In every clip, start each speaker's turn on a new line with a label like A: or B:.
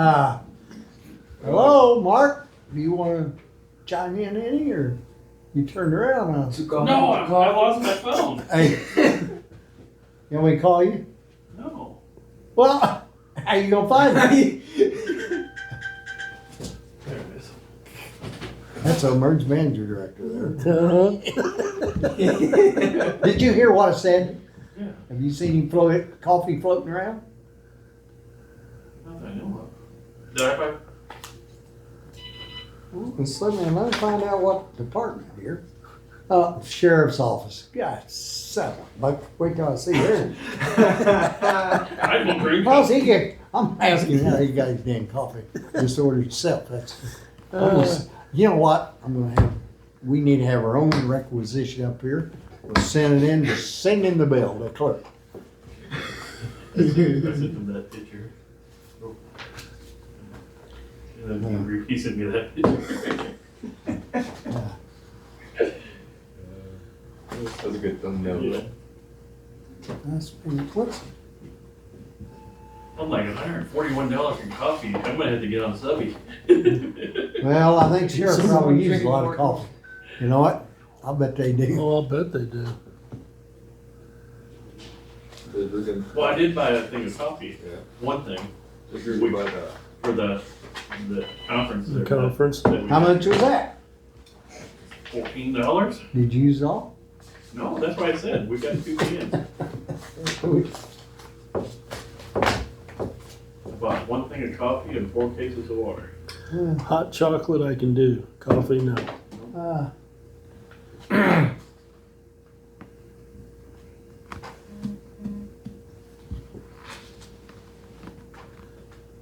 A: Uh, hello, Mark, do you wanna chime in any, or you turned around on us?
B: No, I I lost my phone.
A: Hey, you want me to call you?
B: No.
A: Well, how you gonna find me?
B: There it is.
A: That's our merge manager director there.
C: That's
A: Did you hear what I said?
B: Yeah.
A: Have you seen him float, coffee floating around?
B: Not that I know of. Did I buy?
A: Ooh, And suddenly I'm gonna find out what department here. Uh, sheriff's office. God, son, but wait till I see her.
B: I will drink.
A: How's he get, I'm asking how he got his damn coffee disorder himself, that's, I'm gonna s- you know what, I'm gonna have, we need to have our own requisition up here. We'll Send it in, just send in the bill, the clerk.
B: That's it that's it from that picture. Oh. And then he he sent me that picture.
C: a good thumbnail.
B: Yeah.
A: That's, what's,
B: I'm like, an hundred and forty-one dollars in coffee, I'm gonna have to get on Subby.
A: Well, I think sheriff
D: Someone
A: probably uses a
D: drinking
A: lot of
D: water.
A: coffee. You know what? I bet they do.
D: Oh, I bet they do.
C: They're looking-
B: Well, I did buy a thing of coffee,
C: Yeah.
B: one thing,
C: This is about, uh,
B: for the, the conference.
D: The
B: there,
D: conference.
B: that we
A: How
B: had.
A: much was that?
B: Fourteen dollars?
A: Did you use it all?
B: No, that's why I said, we got two cans. I bought one thing of coffee and four cases of water.
D: Hot chocolate I can do. Coffee no.
A: Uh,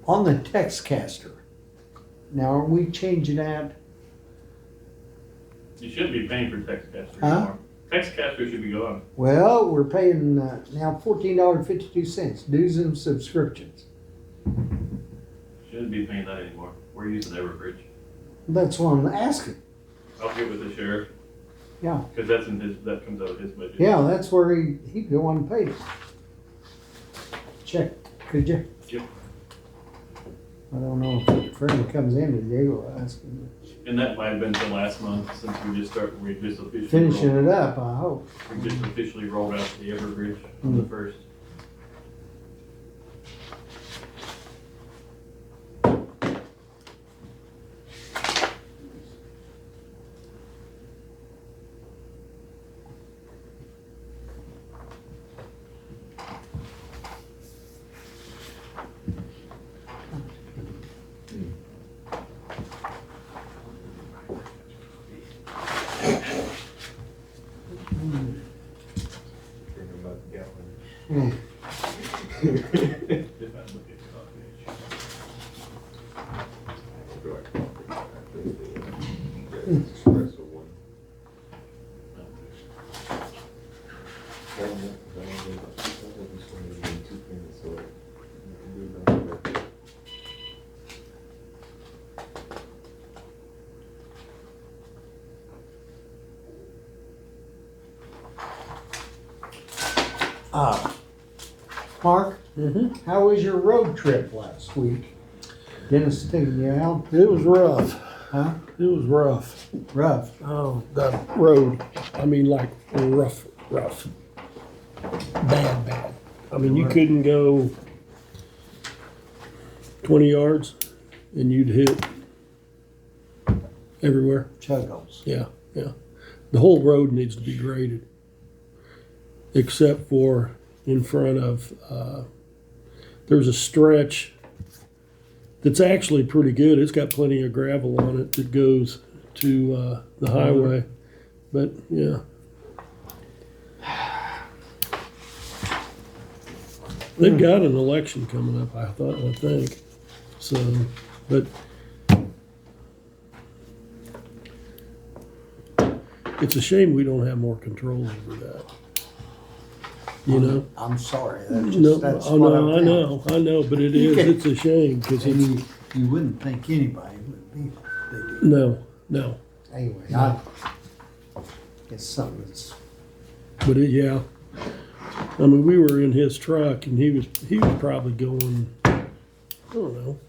A: On the text caster, now are we changing that?
B: You shouldn't be paying for Textcaster
A: Huh?
B: anymore. Textcaster should be gone.
A: Well, we're paying uh, now fourteen dollars fifty-two cents dues and subscriptions.
B: Shouldn't be paying that anymore. We're using Everbridge.
A: That's what I'm asking.
B: I'll get with the sheriff.
A: Yeah.
B: Cause that's in his, that comes out of his budget.
A: Yeah, that's where he, he the one paid it. Check, could you?
B: Yep.
A: I don't know if Freddie comes in today, we'll ask him.
B: And that might have been the last month since we just started, we just officially.
A: Finishing
B: rolled-
A: it Mm-hmm. up, I hope.
B: We just officially rolled out the Everbridge on the first.
C: thinking about the gallon.
A: Yeah.
B: If I look at coffee.
C: Do I call it? I think they, uh, get an espresso one. I don't know, I don't know, I think this one is in two minutes, so you can do nothing but-
A: Uh, Mark,
D: Mm-hmm.
A: how was your road trip last week? Dennis taking you out,
D: It was rough.
A: huh?
D: It was rough.
A: Rough.
D: Oh, that road. I mean, like rough, rough. Bad, bad. I mean, you couldn't go 20 yards and you'd hit everywhere.
A: Chuggles.
D: Yeah, yeah. The whole road needs to be graded, except for in front of, uh, there's a stretch that's actually pretty good. It's got plenty of gravel on it that goes to, uh, the highway. But, yeah. They've got an election coming up, I thought, I think. So, but it's a shame we don't have more control over that. You know?
A: I'm sorry, that's
D: No,
A: just, that's
D: oh,
A: what I'm.
D: no, I know, I know, but it is, it's a shame, cause
A: And
D: it's,
A: you, you wouldn't think anybody would be, they do.
D: no, no,
A: Anyway, I, it's something that's,
D: but it, yeah. I mean, we were in his truck and he was, he was probably going, I don't know,